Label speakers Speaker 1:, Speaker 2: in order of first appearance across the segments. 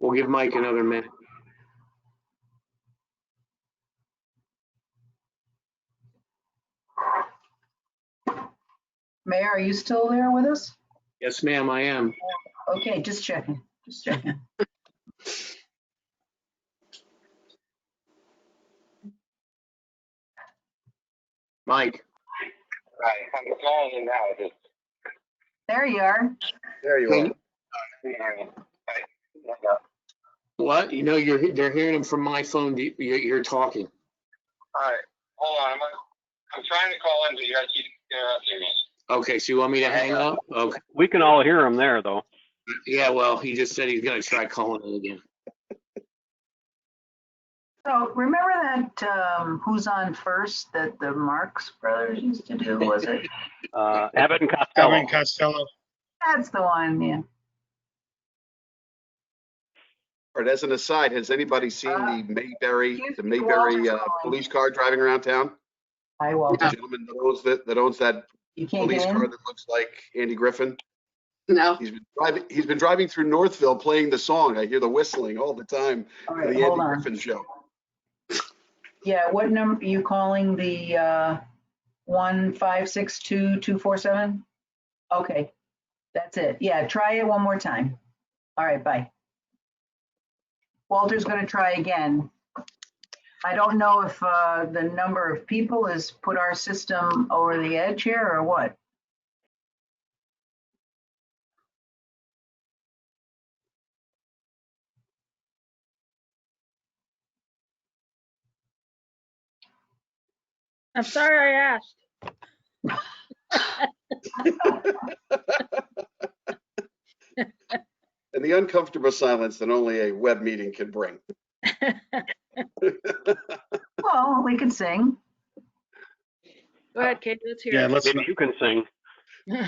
Speaker 1: We'll give Mike another minute.
Speaker 2: Mayor, are you still there with us?
Speaker 1: Yes, ma'am, I am.
Speaker 2: Okay, just checking, just checking.
Speaker 1: Mike,
Speaker 3: Right, I'm calling now. Just,
Speaker 2: There you are.
Speaker 4: There you are.
Speaker 1: what? You know, you're, they're hearing him from my phone. You- You're, you're talking.
Speaker 3: All right, hold on. I'm, I'm trying to call in, but you guys keep interrupting me.
Speaker 1: Okay, so you want me to hang up? Okay.
Speaker 5: We can all hear him there, though.
Speaker 1: Yeah, well, he just said he's gonna try calling in again.
Speaker 2: So remember that um, Who's On First that the Marx Brothers used to do, was it?
Speaker 5: Uh, Abbott and Costello.
Speaker 6: Evan Costello.
Speaker 2: That's the one, yeah.
Speaker 4: All right, as an aside, has anybody seen
Speaker 2: Uh,
Speaker 4: the Mayberry,
Speaker 2: Excuse
Speaker 4: the
Speaker 2: me,
Speaker 4: Mayberry
Speaker 2: Walter's
Speaker 4: uh,
Speaker 2: calling.
Speaker 4: police car driving around town?
Speaker 2: I will,
Speaker 4: The gentleman that owns that, that owns that
Speaker 2: you can't
Speaker 4: police
Speaker 2: get
Speaker 4: car
Speaker 2: in.
Speaker 4: that looks like Andy Griffin.
Speaker 7: No,
Speaker 4: He's been driving, he's been driving through Northville playing the song. I hear the whistling all the time
Speaker 2: All
Speaker 4: for
Speaker 2: right,
Speaker 4: the
Speaker 2: hold
Speaker 4: Andy
Speaker 2: on.
Speaker 4: Griffin show.
Speaker 2: Yeah, what number, you calling the uh, one five six two two four seven? Okay, that's it. Yeah, try it one more time. All right, bye. Walter's gonna try again. I don't know if uh, the number of people has put our system over the edge here or what.
Speaker 8: I'm sorry I asked.
Speaker 4: And the uncomfortable silence that only a web meeting can bring.
Speaker 2: Well, we can sing.
Speaker 8: Go ahead, Katie, let's hear
Speaker 6: Yeah,
Speaker 8: it.
Speaker 6: let's,
Speaker 5: Maybe you can sing.
Speaker 2: No,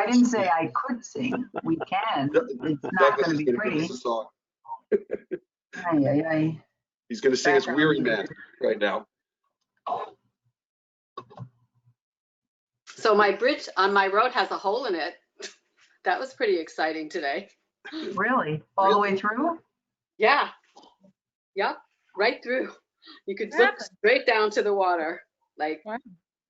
Speaker 2: I didn't say I could sing. We can. It's not
Speaker 4: Douglas
Speaker 2: gonna
Speaker 4: is
Speaker 2: be
Speaker 4: going to give
Speaker 2: pretty.
Speaker 4: us a song.
Speaker 2: Ay, ay, ay.
Speaker 4: He's going to sing us
Speaker 2: Background
Speaker 4: Weary Man
Speaker 2: music.
Speaker 4: right now.
Speaker 7: so my bridge on my road has a hole in it. That was pretty exciting today.
Speaker 2: Really? All the way through?
Speaker 7: Yeah. Yep, right through. You could
Speaker 8: What
Speaker 7: look
Speaker 8: happened?
Speaker 7: straight down to the water. Like
Speaker 8: Wow.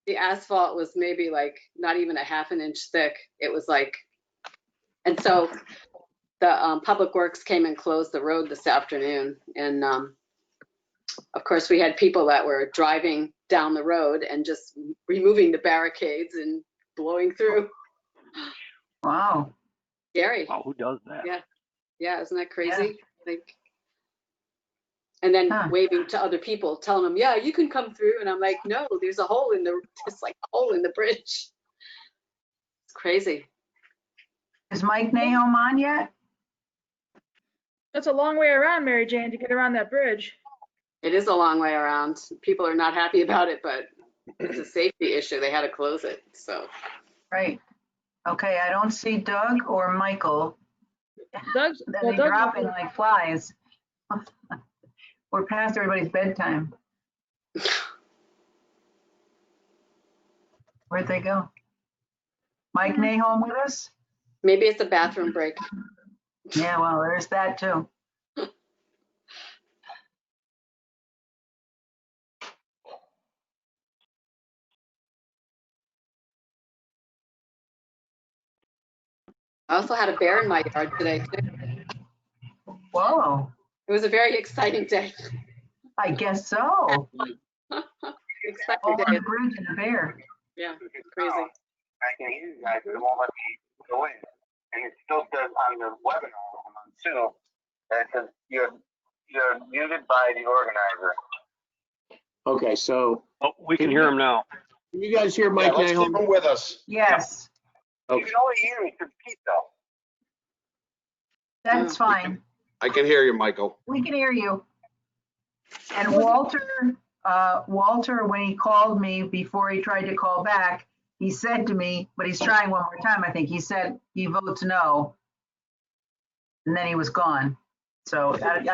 Speaker 7: the asphalt was maybe like not even a half an inch thick. It was like, and so the um, Public Works came and closed the road this afternoon. And um, of course, we had people that were driving down the road and just removing the barricades and blowing through.
Speaker 2: Wow.
Speaker 7: Gary.
Speaker 5: Wow, who does that?
Speaker 7: Yeah. Yeah, isn't that crazy? Like, and then
Speaker 2: Huh.
Speaker 7: waving to other people, telling them, "Yeah, you can come through." And I'm like, "No, there's a hole in the, it's like a hole in the bridge." It's crazy.
Speaker 2: Is Mike Nahom on yet?
Speaker 8: That's a long way around, Mary Jane, to get around that bridge.
Speaker 7: It is a long way around. People are not happy about it, but it's a safety issue. They had to close it. So
Speaker 2: Right. Okay, I don't see Doug or Michael.
Speaker 8: Doug's,
Speaker 2: They're
Speaker 8: well, Doug's,
Speaker 2: dropping like flies. We're past everybody's bedtime. Where'd they go? Mike Nahom with us?
Speaker 7: maybe it's a bathroom break.
Speaker 2: Yeah, well, there's that too.
Speaker 7: I also had a bear in my yard today. too.
Speaker 2: Whoa,
Speaker 7: It was a very exciting day.
Speaker 2: I guess so.
Speaker 7: Exciting
Speaker 2: Over
Speaker 7: day.
Speaker 2: the bridge and a bear.
Speaker 7: Yeah, crazy.
Speaker 3: I can hear you guys, but it won't let me go in. And it still says on the webinar, I'm on Zoom, that it says you're, you're muted by the organizer.
Speaker 1: Okay, so
Speaker 5: Oh, we can hear him now.
Speaker 1: can you guys hear
Speaker 4: Yeah,
Speaker 1: Mike
Speaker 4: let's keep
Speaker 1: Nahom?
Speaker 4: him with us.
Speaker 2: Yes,
Speaker 3: You can only hear me through Pete though.
Speaker 2: that's fine.
Speaker 4: I can hear you, Michael.
Speaker 2: We can hear you. And Walter, uh, Walter, when he called me before he tried to call back, he said to me, but he's trying one more time, I think, he said he votes no. And then he was gone. So I,